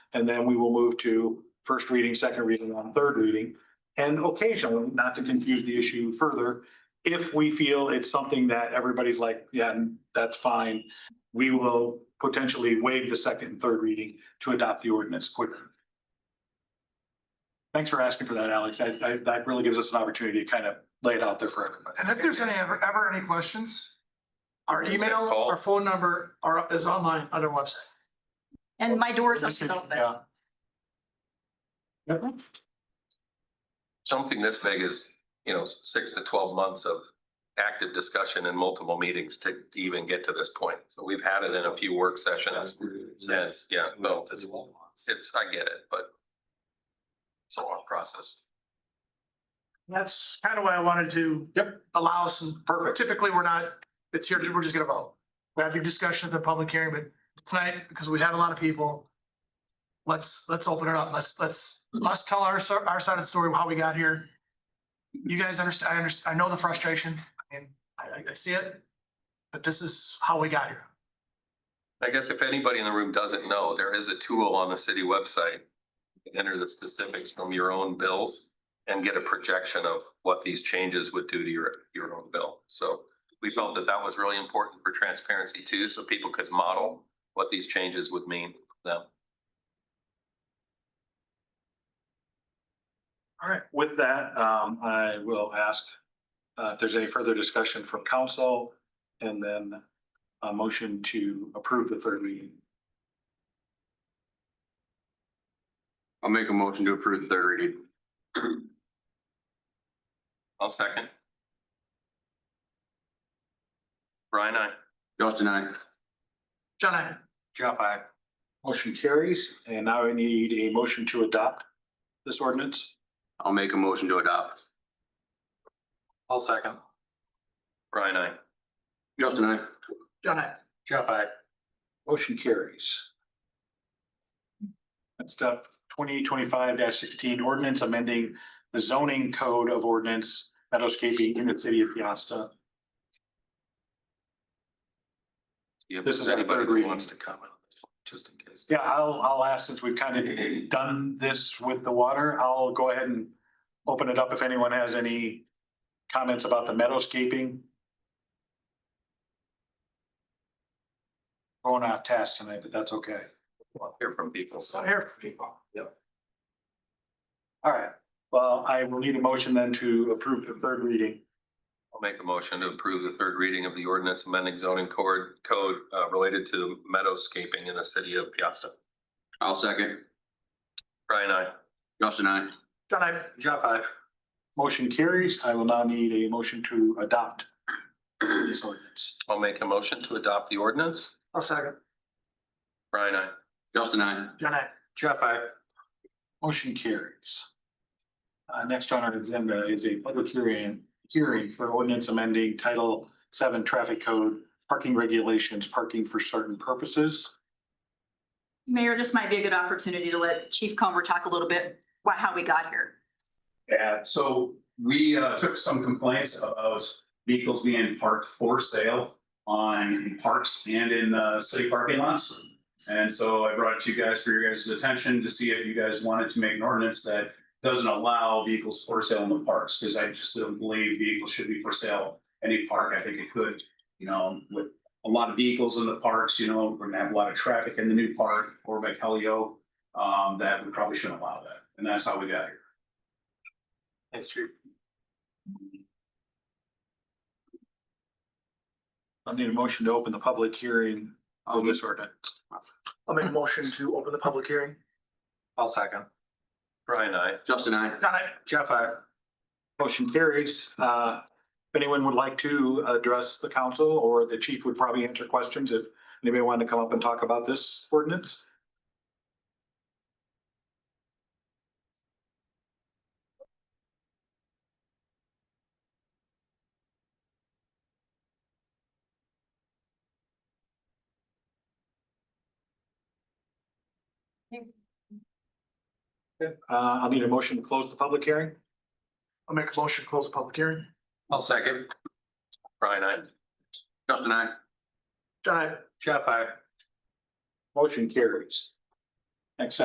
And then we will move to first reading, second reading, on third reading. And occasionally, not to confuse the issue further, if we feel it's something that everybody's like, yeah, that's fine, we will potentially waive the second and third reading to adopt the ordinance quicker. Thanks for asking for that, Alex. That, that- that really gives us an opportunity to kind of lay it out there for everybody. And if there's any, ever, ever any questions, our Give me a email, call. our phone number are, is online on our website. And my door's This always is- open. yeah. Something this big is, you know, six to twelve months of active discussion and multiple meetings to to even get to this point. So we've had it in a few work sessions since, yeah, no, it's, it's, I get it, but it's a long process. That's kind of why I wanted to. Allow some, Perfect. typically we're not, it's here, we're just gonna vote. We have the discussion at the public hearing, but tonight, because we had a lot of people. Let's, let's open it up. Let's, let's, let's tell our, so- our side of the story, how we got here. You guys understand, I understand, I know the frustration and I, I- I see it. But this is how we got here. I guess if anybody in the room doesn't know, there is a tool on the city website. You can Enter the specifics from your own bills and get a projection of what these changes would do to your, your own bill. So we felt that that was really important for transparency too, so people could model what these changes would mean for them. All right, with that, um, I will ask, uh, if there's any further discussion from council and then a motion to approve the third reading. I'll make a motion to approve the third reading. I'll second. Brian, I. Justin, I. John, I, Jeff, I. Motion carries, and now I need a motion to adopt this ordinance. I'll make a motion to adopt. I'll second. Brian, I. Justin, I. John, I. Jeff, I. Motion carries. Next up, twenty twenty-five sixteen ordinance amending the zoning code of ordinance meadowscaping in the city of Piasta. This is our anybody third who reading. wants to comment, just in case. Yeah, I'll, I'll ask, since we've kind of done this with the water, I'll go ahead and open it up if anyone has any comments about the meadowscaping. Going off task tonight, but that's okay. Hear from people, so. I'm here for people. All right, well, I will need a motion then to approve the third reading. I'll make a motion to approve the third reading of the ordinance amending zoning code, code, uh, related to meadowscaping in the city of Piasta. I'll second. Brian, I. Justin, I. John, I. Jeff, I. Motion carries. I will now need a motion to adopt this ordinance. I'll make a motion to adopt the ordinance. I'll second. Brian, I. Justin, I. John, I. Jeff, I. Motion carries. Uh, next on our agenda is a public hearing, hearing for ordinance amending Title Seven Traffic Code, parking regulations, parking for certain purposes. Mayor, this might be a good opportunity to let Chief Comer talk a little bit about how we got here. Yeah, so we uh, took some complaints about vehicles being parked for sale on in parks and in the city parking lots. And so I brought it to you guys for your guys' attention to see if you guys wanted to make an ordinance that doesn't allow vehicles for sale in the parks, because I just don't believe vehicles should be for sale any park. I think it could, you know, with a lot of vehicles in the parks, you know, we're gonna have a lot of traffic in the new park or by Helio, um, that we probably shouldn't allow that. And that's how we got here. Thanks, Chief. I need a motion to open the public hearing of this ordinance. I'll make a motion to open the public hearing. I'll second. Brian, I. Justin, I. John, I. Jeff, I. Motion carries. Uh, if anyone would like to address the council or the chief would probably answer questions if anybody wanted to come up and talk about this ordinance. Okay, Uh, I'll need a motion to close the public hearing. I'll make a motion to close the public hearing. I'll second. Brian, I. Justin, I. John, I. Jeff, I. Motion carries. Next